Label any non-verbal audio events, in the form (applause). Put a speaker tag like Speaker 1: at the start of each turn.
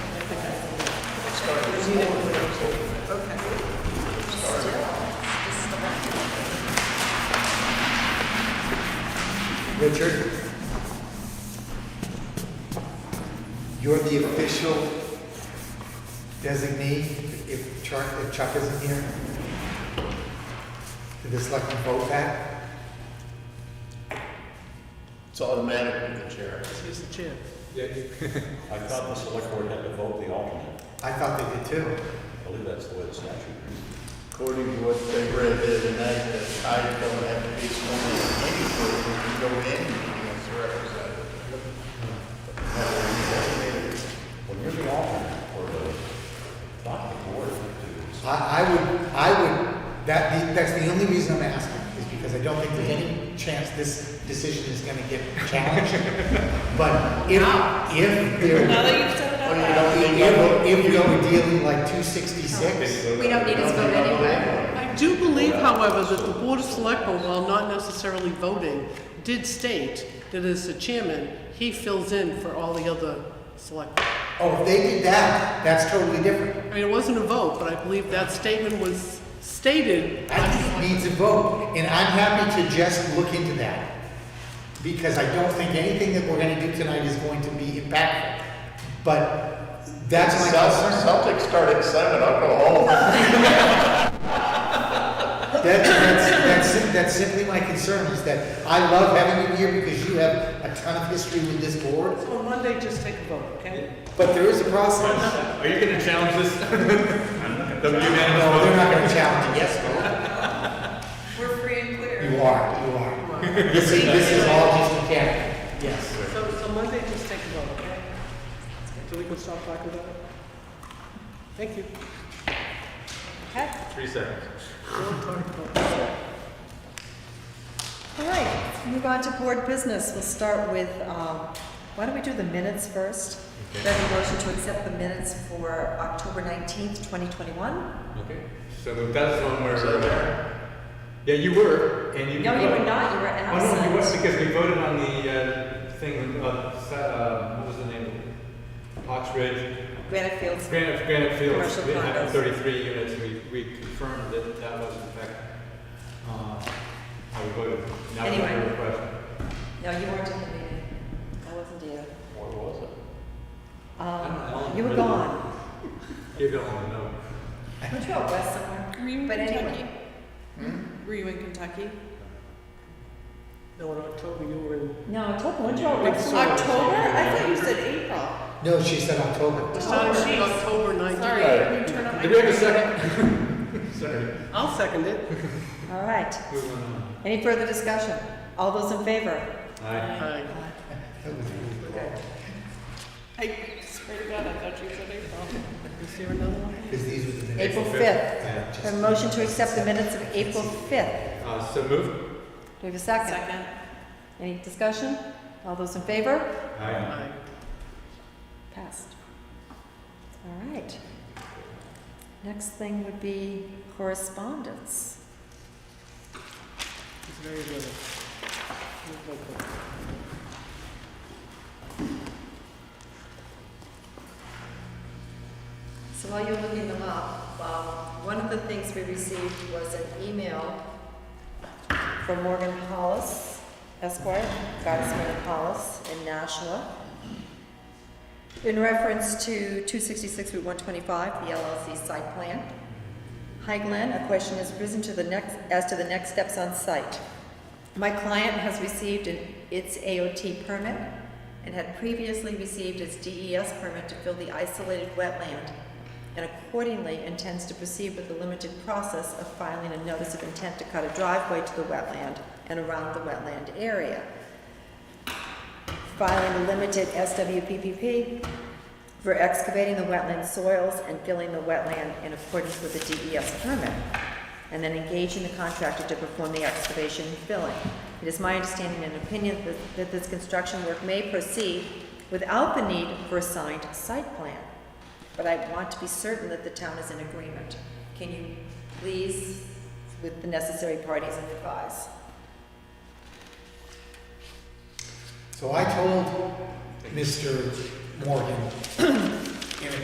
Speaker 1: Richard? You're the official designee, if Chuck, if Chuck isn't here? Did the selectmen vote that?
Speaker 2: It's automatic with the chair.
Speaker 3: He's the chair.
Speaker 4: I thought the select board had to vote the alternate.
Speaker 1: I thought they did too.
Speaker 4: I believe that's the way the statute reads.
Speaker 2: According to what they read there tonight, that I don't have to be sworn in anywhere, we can go in as a representative.
Speaker 4: When you're the alternate for the, not the board, it's-
Speaker 1: I, I would, I would, that, the- that's the only reason I'm asking, is because I don't think there's any chance this decision is gonna get
Speaker 5: (laughs)
Speaker 1: challenged. But if, if there, Oh,
Speaker 6: Now that you've set it
Speaker 2: Well,
Speaker 6: up.
Speaker 2: you don't need my vote.
Speaker 1: if, if we were dealing like two sixty-six,
Speaker 5: We don't need his vote anyway.
Speaker 3: I do believe, however, that the Board of Selectmen, while not necessarily voting, did state that as the chairman, he fills in for all the other selectmen.
Speaker 1: oh, if they did that, that's totally different.
Speaker 3: I mean, it wasn't a vote, but I believe that statement was stated. by
Speaker 1: I think
Speaker 3: the
Speaker 1: it needs a vote, and I'm happy to just look into that. Because I don't think anything that we're gonna do tonight is going to be impactful. But that's my
Speaker 2: Celt-
Speaker 1: concern.
Speaker 2: Celtics start at seven, I'll go home.
Speaker 1: That, that's, that's, that's simply my concern, is that I love having you here because you have a ton of history with this board,
Speaker 3: selectmen. So Monday, just take a vote, okay?
Speaker 1: but there is a process.
Speaker 7: Are you gonna challenge this? (laughs) The
Speaker 1: No,
Speaker 7: unanimous
Speaker 1: they're
Speaker 7: vote?
Speaker 1: not gonna challenge you, yes,
Speaker 5: We're free and
Speaker 1: no.
Speaker 5: clear.
Speaker 1: You are, you are. This is, this is all just mechanical. Yes.
Speaker 3: So, so Monday, just take a vote, okay? So we can stop talking about it? Thank you.
Speaker 6: Okay.
Speaker 7: Three seconds.
Speaker 3: Don't talk about it.
Speaker 6: All right, move on to board business. We'll start with, um, why don't we do the minutes first? Then a motion to accept the minutes for October 19th, 2021?
Speaker 7: Okay, so that's one where. Yeah, you were, and you.
Speaker 6: No, you were not, you were
Speaker 7: Oh, no, you were,
Speaker 6: absent.
Speaker 7: because we voted on the, uh, thing, uh, sa- uh, what was the name? of it? Hawks Ridge,
Speaker 6: Granite Fields.
Speaker 7: Granite, Granite Fields,
Speaker 6: Commercial
Speaker 7: we had
Speaker 6: condos.
Speaker 7: thirty-three units, we, we confirmed that that was in fact, uh, how we voted. Now we have a
Speaker 6: Anyway.
Speaker 7: request.
Speaker 6: No, you weren't in the meeting. I wasn't either.
Speaker 4: Or was it?
Speaker 6: Um,
Speaker 7: don't
Speaker 6: You were
Speaker 7: really.
Speaker 6: gone.
Speaker 7: You don't want to know.
Speaker 6: Weren't you out west somewhere?
Speaker 5: Were you in
Speaker 6: But anyway.
Speaker 5: Kentucky? Were you in Kentucky?
Speaker 3: No, in October, you were in,
Speaker 6: No, October, weren't you out
Speaker 3: Big
Speaker 6: west?
Speaker 3: sword.
Speaker 5: October? I thought you said April.
Speaker 1: No, she said October.
Speaker 3: the start
Speaker 5: Oh, jeez.
Speaker 3: was October 19th.
Speaker 5: Sorry, I didn't turn on my.
Speaker 7: Did we have a second? Sorry.
Speaker 3: I'll second it.
Speaker 6: All right.
Speaker 7: Moving on.
Speaker 6: Any further discussion? All those in favor?
Speaker 7: Aye.
Speaker 3: Aye.
Speaker 5: I swear to God, I thought you said April.
Speaker 3: Is there another one?
Speaker 1: Because these were the minutes.
Speaker 6: April
Speaker 7: fifth.
Speaker 6: 5th.
Speaker 1: Yeah,
Speaker 6: A
Speaker 1: just-
Speaker 6: motion to accept the minutes of April 5th.
Speaker 7: Uh, so moved.
Speaker 6: Do we have a second?
Speaker 5: Second.
Speaker 6: Any discussion? All those in favor?
Speaker 7: Aye.
Speaker 3: Aye.
Speaker 6: Passed. All right. Next thing would be correspondence.
Speaker 3: It's very little. Move like that.
Speaker 6: So while you're looking them up, um, one of the things we received was an email from Morgan Hollis Esquire, Gottesman and Hollis in Nashua, in reference to 266 Route 125, the LLC site plan. Hi Glenn, a question has risen to the next, as to the next steps on site. My client has received an, its AOT permit and had previously received its DES permit to fill the isolated wetland and accordingly intends to proceed with the limited process of filing a notice of intent to cut a driveway to the wetland and around the wetland area. Filing a limited SWPPP for excavating the wetland soils and filling the wetland in accordance with the DES permit, and then engaging the contractor to perform the excavation and filling. It is my understanding and opinion that, that this construction work may proceed without the need for a signed site plan, but I want to be certain that the town is in agreement. Can you please, with the necessary parties, advise?
Speaker 1: So I told Mr. Morgan